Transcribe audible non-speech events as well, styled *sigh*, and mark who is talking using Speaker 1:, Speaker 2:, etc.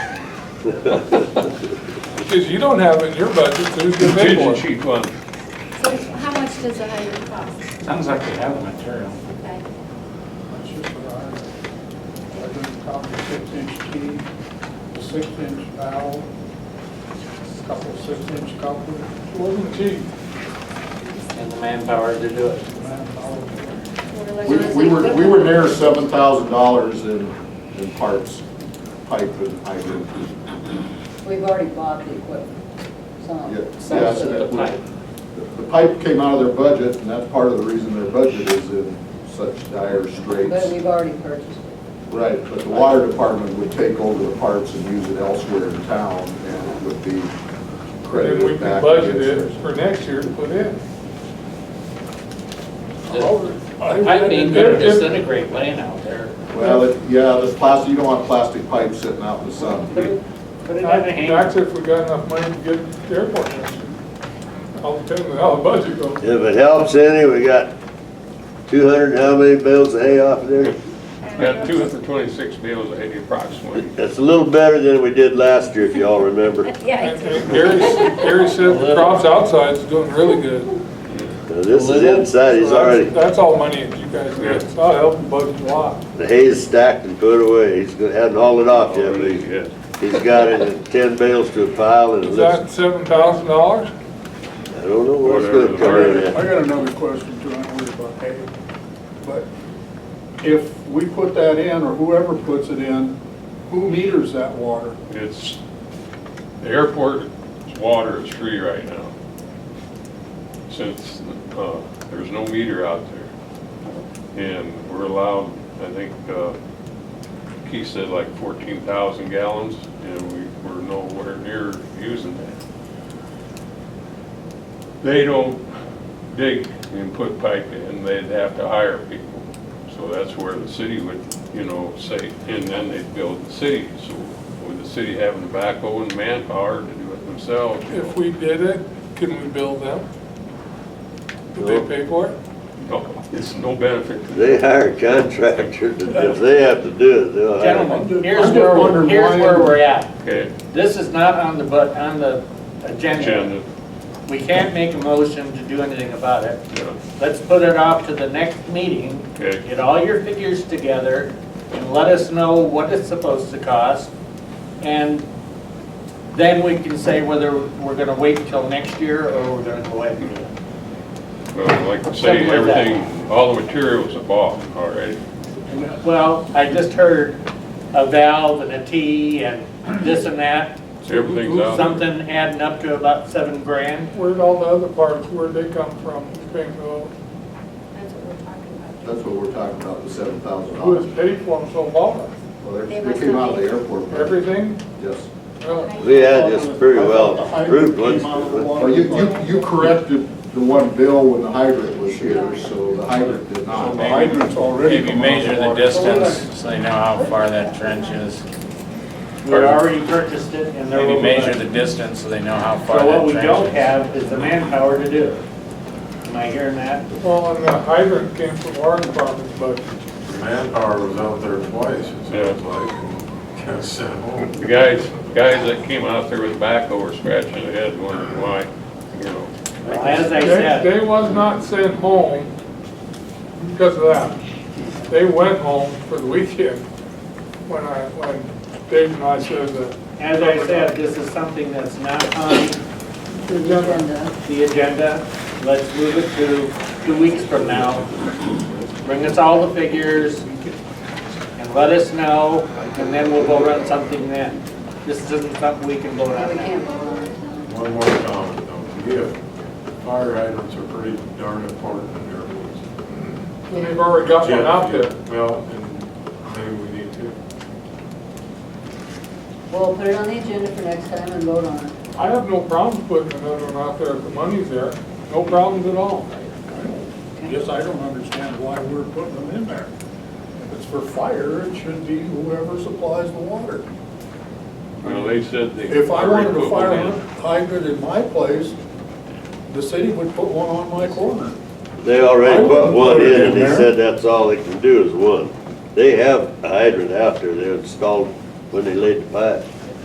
Speaker 1: Because you don't have it in your budget, so who's gonna pay for
Speaker 2: Contingency
Speaker 1: it?
Speaker 2: fund.
Speaker 3: So how much does a hydrant cost?
Speaker 4: Sounds like they have the material.
Speaker 3: Okay.
Speaker 5: That's just what I have. I did copy six-inch key, a six-inch valve, a couple six-inch couplers,
Speaker 1: It Wasn't cheap.
Speaker 4: And the manpower to do it.
Speaker 5: and all of it.
Speaker 3: We're like-
Speaker 6: We we were, we were near seven thousand dollars in, in parts, pipe and hydrant.
Speaker 7: We've already bought the equipment, some.
Speaker 6: Yeah,
Speaker 7: some of
Speaker 6: Yes,
Speaker 7: it.
Speaker 6: and it- the pipe came out of their budget, and that's part of the reason their budget is in such dire
Speaker 7: But
Speaker 6: straits.
Speaker 7: we've already purchased it.
Speaker 6: Right, but the water department would take over the parts and use it elsewhere in town, and it would be
Speaker 1: And we
Speaker 6: credited
Speaker 1: can
Speaker 6: back.
Speaker 1: budget
Speaker 6: against
Speaker 1: it for next year to put in.
Speaker 4: I mean, they're disintegrate laying out there.
Speaker 6: theirs. Well, it- yeah, the plastic, you don't want plastic pipe sitting out in the sun.
Speaker 4: Put it put it in a
Speaker 1: That's
Speaker 4: hand.
Speaker 1: if we got enough money to get the airport next year. All depends on how the budget goes.
Speaker 8: If it helps any, we got two hundred, how many bales of hay off there?
Speaker 2: Got two hundred twenty-six bills ahead approximately.
Speaker 8: That's a little better than we did last year, if y'all
Speaker 3: *laughs*
Speaker 8: remember.
Speaker 3: Yeah,
Speaker 1: And and Gary, Gary said the crops outside's doing really good.
Speaker 8: Now, This is inside,
Speaker 1: So
Speaker 8: he's
Speaker 1: that's-
Speaker 8: already,
Speaker 1: That's all money that you guys get, so I'll help the budget a lot.
Speaker 8: the hay's stacked and put away, he's gonna, hadn't hauled it off yet, but he's,
Speaker 2: Yes.
Speaker 8: he's got it in ten bales to a pile and it
Speaker 1: Is
Speaker 8: looks,
Speaker 1: that seven thousand dollars?
Speaker 8: I don't know where it's gonna come in
Speaker 5: I
Speaker 8: at.
Speaker 5: got another question too, I don't worry about hay, but if we put that in, or whoever puts it in, who meters that water?
Speaker 2: It's, the airport's water is free right now. Since, uh, there's no meter out there. And we're allowed, I think, uh, Keith said like fourteen thousand gallons, and we, we're nowhere near using that. They don't dig and put pipe in, they'd have to hire people. So that's where the city would, you know, say, and then they'd build the city. So with the city having the backhoe and manpower to do it themselves. you
Speaker 1: If
Speaker 2: know.
Speaker 1: we did it, can we build them? Would they pay for it?
Speaker 2: No, It's no benefit to
Speaker 8: They hire contractors, and if they have to do it, they'll hire. them.
Speaker 4: Gentlemen, here's
Speaker 5: I'm just
Speaker 4: where, we're-
Speaker 5: wondering
Speaker 4: here's
Speaker 5: why-
Speaker 4: where we're at.
Speaker 2: Okay,
Speaker 4: This is not on the, but, on the agenda.
Speaker 2: agenda,
Speaker 4: We can't make a motion to do anything about it.
Speaker 2: yeah.
Speaker 4: Let's put it off to the next meeting.
Speaker 2: Okay.
Speaker 4: Get all your figures together and let us know what it's supposed to cost. And then we can say whether we're gonna wait until next year or we're gonna go ahead and do it.
Speaker 2: Well, like I say,
Speaker 4: Something like that.
Speaker 2: everything, all the materials are bought already.
Speaker 4: And, Well, I just heard a valve and a T and this and that.
Speaker 2: Everything's out there.
Speaker 4: Something adding up to about seven grand.
Speaker 1: Where'd all the other parts, where'd they come from? Springville?
Speaker 3: That's what we're talking about.
Speaker 6: That's what we're talking about, the seven thousand
Speaker 1: Who has
Speaker 6: dollars.
Speaker 1: paid for them so far?
Speaker 6: Well, they they came out of the airport. budget.
Speaker 1: Everything?
Speaker 6: Yes.
Speaker 1: Really?
Speaker 8: We had this pretty well approved once.
Speaker 6: Well, you, you, you corrected the one bill when the hydrant was here, so the hydrant did not.
Speaker 5: The hydrant's already.
Speaker 9: Maybe measure the distance, so they know how far that trench is.
Speaker 4: We already purchased it and they're.
Speaker 9: Maybe measure the distance, so they know how far
Speaker 4: So what
Speaker 9: that
Speaker 4: we don't
Speaker 9: trench is.
Speaker 4: have is the manpower to do it. Am I hearing that?
Speaker 1: Well, and the hydrant came from our department's budget.
Speaker 10: Manpower was out there twice, it sounds
Speaker 2: Yeah.
Speaker 10: like, and got sent home.
Speaker 2: The guys, guys that came out there with backhoe were scratching their head wondering why, you know.
Speaker 4: As I
Speaker 1: They,
Speaker 4: said,
Speaker 1: they was not sent home because of that. They went home for the weekend when I, when Dave and I said that.
Speaker 4: as I said, this is something that's not on
Speaker 7: Agenda.
Speaker 4: the agenda. Let's move it to two weeks from now. Bring us all the figures and let us know, and then we'll go run something then. This isn't something we can vote
Speaker 7: No, we
Speaker 4: on now.
Speaker 7: can't.
Speaker 10: One more comment, don't forget, fire hydrants are pretty darn important in airports.
Speaker 1: And they've already got one out there.
Speaker 10: Well, and maybe we need to.
Speaker 7: We'll put it on the agenda for next time and vote on it.
Speaker 1: I have no problems putting another one out there if the money's there. No problems at all.
Speaker 5: Guess I don't understand why we're putting them in there. If it's for fire, it should be whoever supplies the water.
Speaker 2: Well, they said they.
Speaker 5: If I
Speaker 2: already
Speaker 5: wanted a
Speaker 2: put
Speaker 5: fire
Speaker 2: one in.
Speaker 5: hydrant in my place, the city would put one on my corner.
Speaker 8: They Oh, already put one in, and they said that's all they can do is one. They have a hydrant out there, they installed when they laid the pipe.